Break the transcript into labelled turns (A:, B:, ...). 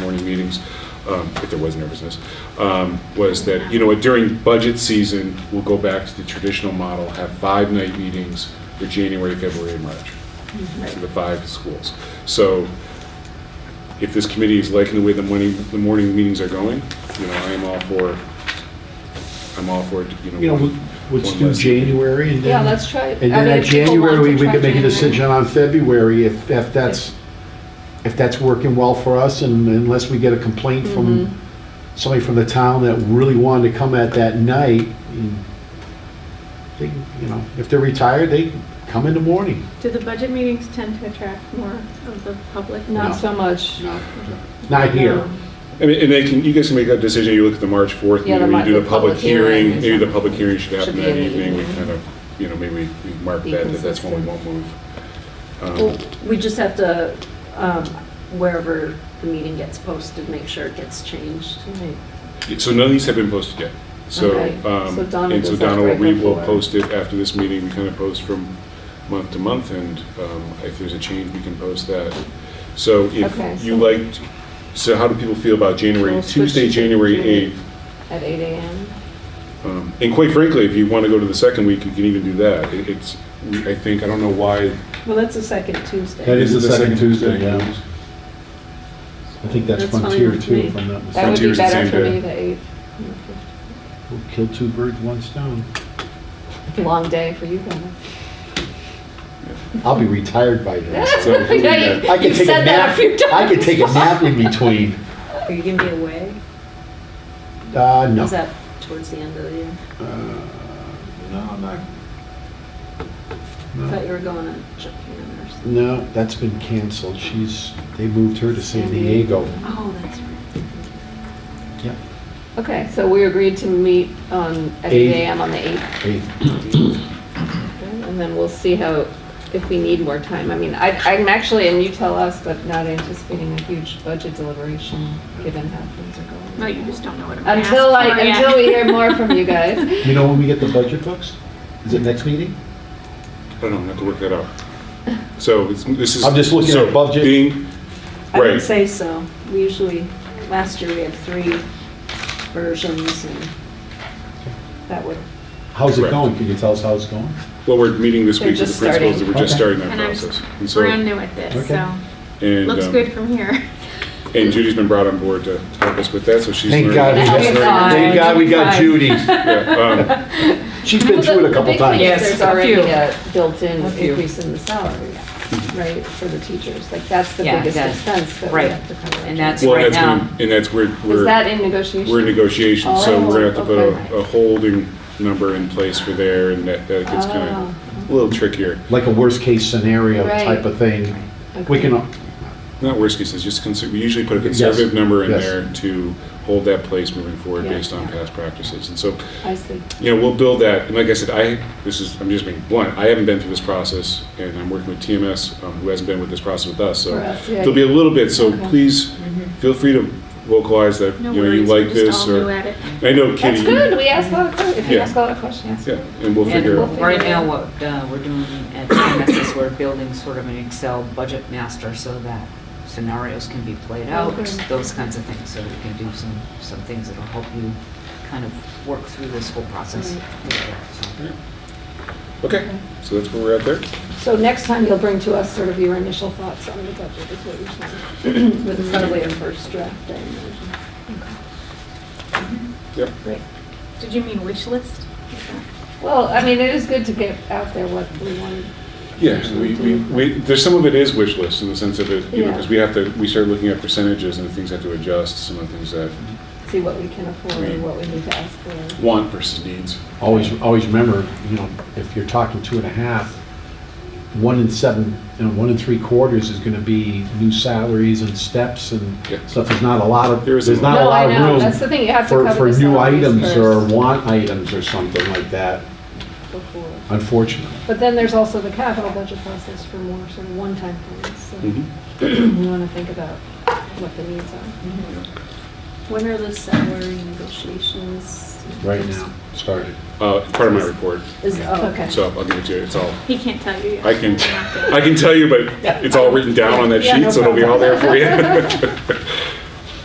A: morning meetings, um, if there was nervousness, um, was that, you know, during budget season, we'll go back to the traditional model, have five night meetings for January, February, and March, for the five schools. So if this committee is liking the way the morning, the morning meetings are going, you know, I am all for, I'm all for, you know.
B: You know,
A: one-
B: let's
A: one
B: do
A: less.
B: January and then.
C: Yeah, let's try.
B: And then at January, we could make a decision on February if, if that's, if that's working well for us and unless we get a complaint from
C: Mm-hmm.
B: somebody from the town that really wanted to come at that night. and They, you know, if they're retired, they come in the morning.
D: Do the budget meetings tend to attract more of the public?
B: No.
C: Not so much.
B: you know. Not here.
A: I mean, and they can, you guys can make that decision, you look at the March 4th
C: Yeah, the
A: meeting, when
C: Mar-
A: you do
C: the
A: the public
C: public hearing
A: hearing,
C: is
A: maybe the
C: on-
A: public hearing should happen
C: should be
A: that
C: in the
A: evening, we
C: evening.
A: kind of, you know, maybe we we mark
C: Be
A: that, that that's when we
C: consistent.
A: won't move.
E: Well,
A: Um,
E: We just have to, um, wherever the meeting gets posted, make sure it gets changed.
A: So none of these have been posted yet, so,
C: Okay.
A: um,
C: So Donna
A: and so
C: does that
A: Donna, will- we
C: break up
A: will
C: for-
A: post it after this meeting, we kind of post from month to month, and um, if there's a change, we can post that. So
C: Okay,
A: if you
C: so-
A: liked, so how do people feel about January,
C: We'll switch
A: Tuesday,
C: to
A: January
C: January.
A: 8th?
C: At eight AM?
A: Um, And quite frankly, if you want to go to the second week, you can even do that. It- It's, I think, I don't know why.
E: Well, that's the second
B: That
E: Tuesday.
B: is- the second Tuesday, yeah.
A: It
B: I think that's
E: That's fine
B: Frontier
E: with
B: too,
E: me.
B: if I'm not mistaken.
C: That would be
A: Frontier's the
C: better
A: same
C: for
A: day.
C: me, the eighth.
B: We'll Kill two birds, one stone.
C: Long day for you guys.
B: I'll be retired by then.
A: So, yeah.
B: I could take
C: You've
B: a
C: said that a
B: nap,
C: few times.
B: I could take a nap in between.
E: Are you gonna be away?
B: Uh, no.
E: Is that towards the end of the year?
B: Uh, No, I'm not.
E: I thought
B: No.
E: you were going to Japan or something.
B: No, that's been canceled. She's, they moved her to San Diego.
E: Oh, that's right.
B: Yeah.
C: Okay, so we agreed to meet on, at eight
B: Eight.
C: AM on the eighth, and then we'll see how, if we need more time. I mean, I, I'm actually, and you tell us, but not anticipating a huge budget deliberation, given how things are going.
D: No, you just don't know what I'm asking
C: Until I,
D: for yet.
C: until we hear more from you guys.
B: You know when we get the budget books? Is it next meeting?
A: I don't know, I have to work that out. So it's- this is.
B: I'm just looking
A: so
B: at budget.
A: being-
E: I would
A: Right,
E: say so. We usually, last year we had three versions and that would,
B: How's it
A: Correct.
B: going? Can you tell us how it's going?
A: well, we're meeting this
C: They're
A: week with
C: just
A: the principals,
C: starting.
A: and we're just
B: Okay.
A: starting that
D: And I'm
A: process. And so-
D: brand new at this,
B: Okay.
D: so
A: and,
D: looks
A: um,
D: good from here.
A: And Judy's been brought on board to help us with that, so she's.
B: Thank
A: learning-
B: God, we
A: she's
B: got-
C: That'll be fine.
B: thank God we got
C: That'll
B: Judy.
A: learning. Yeah, um,
B: She's been through it a couple
C: The big thing
B: times.
C: is
F: Yes,
C: there's
F: a
C: already
F: few.
C: a built-in
F: A few.
C: increase in the salary, right, for the teachers. Like, that's the
F: Yeah,
C: biggest
F: that-
C: expense that we
F: right.
C: have to cover.
F: And that's-
A: Well,
F: right
A: that's gonna-
F: now.
A: And that's where we're.
C: Is that in negotiation?
A: We're in negotiations, so we're gonna have to put a,
C: Oh,
A: a holding number in place for there, and that, that gets kind
C: Oh.
A: of a little trickier.
B: Like a worst-case scenario
C: Right.
B: type of thing. We
C: Okay.
B: can,
A: Not worst cases, just consider, we usually put a
B: Yes,
A: conservative number in
B: yes.
A: there to hold that place moving forward
C: Yeah.
A: based on past practices. And so,
C: I see.
A: you know, we'll build that, and like I said, I, this is, I'm just being blunt, I haven't been through this process, and I'm working with TMS, um, who hasn't been with this process with us, so
C: For us, yeah,
A: there'll be a little bit, so
C: Okay.
A: please feel free to vocalize that, you
D: No
A: know, you
D: worries, we're
A: like
D: just
A: this,
D: all new
A: or,
D: at it.
A: I know Kitty.
C: That's good, we asked a lot of questions, if you
A: Yeah.
C: ask a lot of questions.
A: Yeah, and we'll
F: And
A: figure out.
F: right now, what uh, we're doing at TMS is we're building sort of an Excel budget master so that scenarios can be played out,
C: Okay.
F: those kinds of things. So we can do some, some things that'll help you kind of work through this whole process. So-
A: Mm-hmm. Okay, so that's where we're at there.
C: So next time you'll bring to us sort of your initial thoughts on the budget, is what you're saying, with probably a first draft, I imagine.
A: Yep.
C: Great.
D: Did you mean wish list?
C: Well, I mean, it is good to get out there what we want.
A: Yeah, so we, we, we, there's some of it is wish list in the sense of it, you know,
C: Yeah.
A: because we have to, we start looking at percentages and things have to adjust, some of the things that
C: see what we can afford and what we need to ask for.
A: want versus needs.
B: always, always remember, you know, if you're talking two and a half, one in seven, you know, one in three quarters is gonna be new salaries and steps and
A: Yeah.
B: stuff. There's not a lot of,
A: There is a
B: there's
A: lot.
B: not a
C: No, I
B: lot
C: know. That's
B: of
C: the
B: room
C: thing, you have to
B: for, for
C: cover the
B: new
C: salaries
B: items or
C: first
B: want items or something like that,
C: before.
B: unfortunately.
C: But then there's also the capital budget process for more sort of one-time things,
B: Mm-hmm.
A: Mhm.
C: so we want to think about what the needs are.
E: when are the salary negotiations?
B: Right now, started.
A: Uh, it's part of my report,
E: Is, oh,
C: Okay.
A: so I'll give it to you, it's all,
D: He can't tell you yet.
A: I can, I can tell you, but it's all written down on that
C: Yeah, no
A: sheet, so it'll be all there for you.